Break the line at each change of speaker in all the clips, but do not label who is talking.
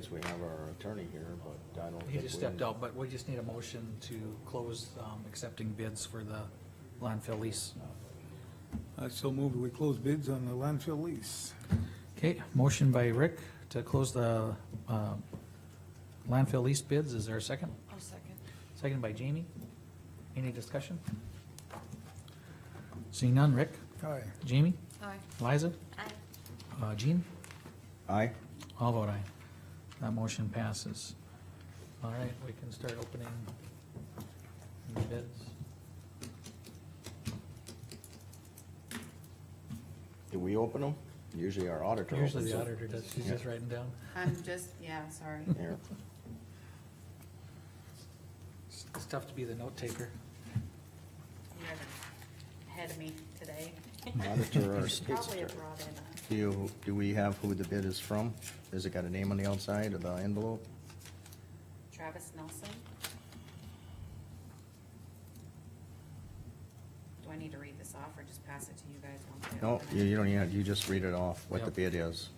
Since we have our attorney here, but I don't think.
He just
we-
stepped out, but we just need a motion to close, um, accepting bids for the landfill lease.
I so moved, we close bids on the landfill lease.
Okay, motion by Rick to close the, uh, landfill lease bids. Is there a second?
I'll second.
Second by Jamie. Any discussion? Seeing none, Rick,
Aye.
Jamie,
Aye.
Liza,
Aye.
uh, Jean,
Aye,
all vote aye. That motion passes. All right, we can start opening the bids.
do we open them? Usually our auditor opens
Usually the
them.
auditor does, she's just writing down.
I'm just, yeah, sorry.
Here,
It's it's tough to be the note taker.
You guys are ahead of me today.
auditor or
Probably
solicitor.
have brought in uh, a.
Do you, do we have who the bid is from? Has it got a name on the outside of the envelope?
Travis Nelson? Do I need to read this off or just pass it to you guys? once I
No,
open
you,
it?
you don't, need it. you just read it off, what the
Yep.
bid is.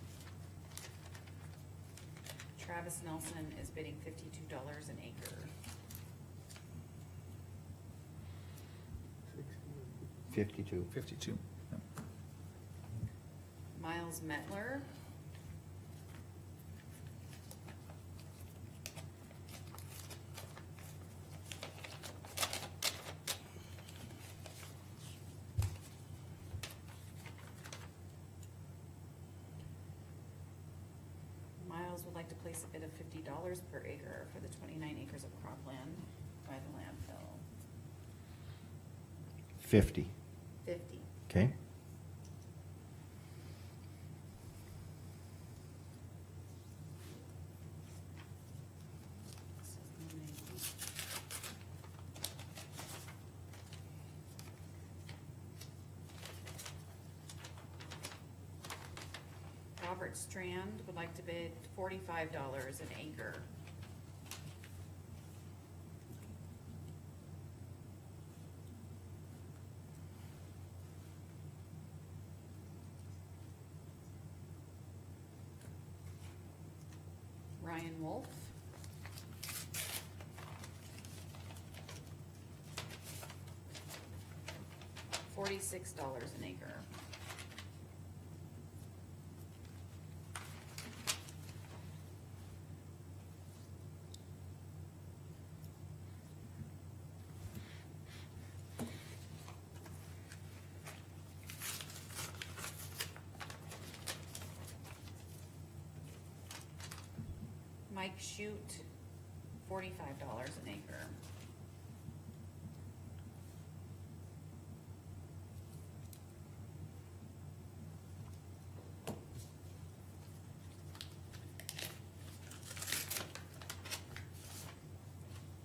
Travis Nelson is bidding fifty-two dollars an acre.
Fifty-two.
Fifty-two.
Miles Mettler? Miles would like to place a bid of fifty dollars per acre for the twenty-nine acres of cropland by the landfill.
Fifty,
Fifty.
okay?
This is the name. Robert Strand would like to bid forty-five dollars an acre. Ryan Wolf. Forty-six dollars an acre. Mike Shoot, forty-five dollars an acre.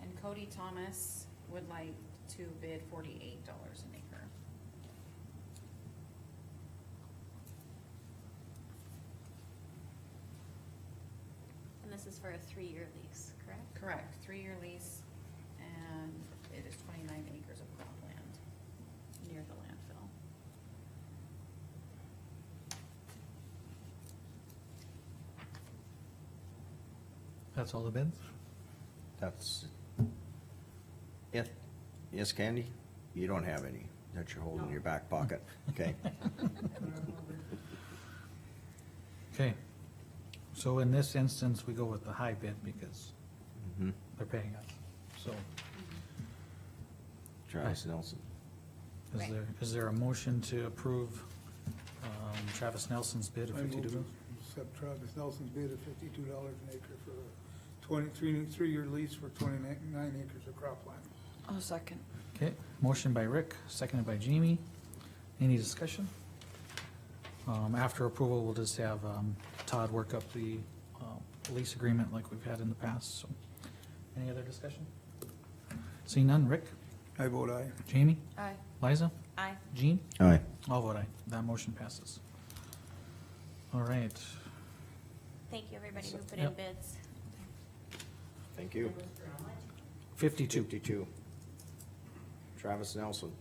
And Cody Thomas would like to bid forty-eight dollars an acre.
And this is for a three-year lease, correct?
Correct, three-year lease, and it is twenty-nine acres of cropland near the landfill.
That's all the bids?
That's it. Yes, Candy? You don't have any that you're holding in your back pocket, okay?
Okay. So in this instance, we go with the high bid because
Mhm.
they're paying us. So
Travis Nelson.
is there, is there a motion to approve um, Travis Nelson's bid of
I move
fifty-two?
to accept Travis Nelson's bid of fifty-two dollars an acre for a twenty-three, three-year lease for twenty-nine acres of cropland.
I'll second.
Okay, motion by Rick, seconded by Jamie. Any discussion? Um, after approval, we'll just have, um, Todd work up the, um, lease agreement like we've had in the past, so. Any other discussion? Seeing none, Rick,
I vote aye.
Jamie,
Aye.
Liza,
Aye.
Jean?
Aye.
All vote aye. That motion passes. All right.
Thank you, everybody who put in
Yep.
bids.
Thank you.
Fifty-two.
Fifty-two. Travis Nelson.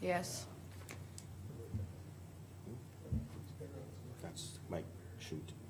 Yes.
That's Mike Shoot.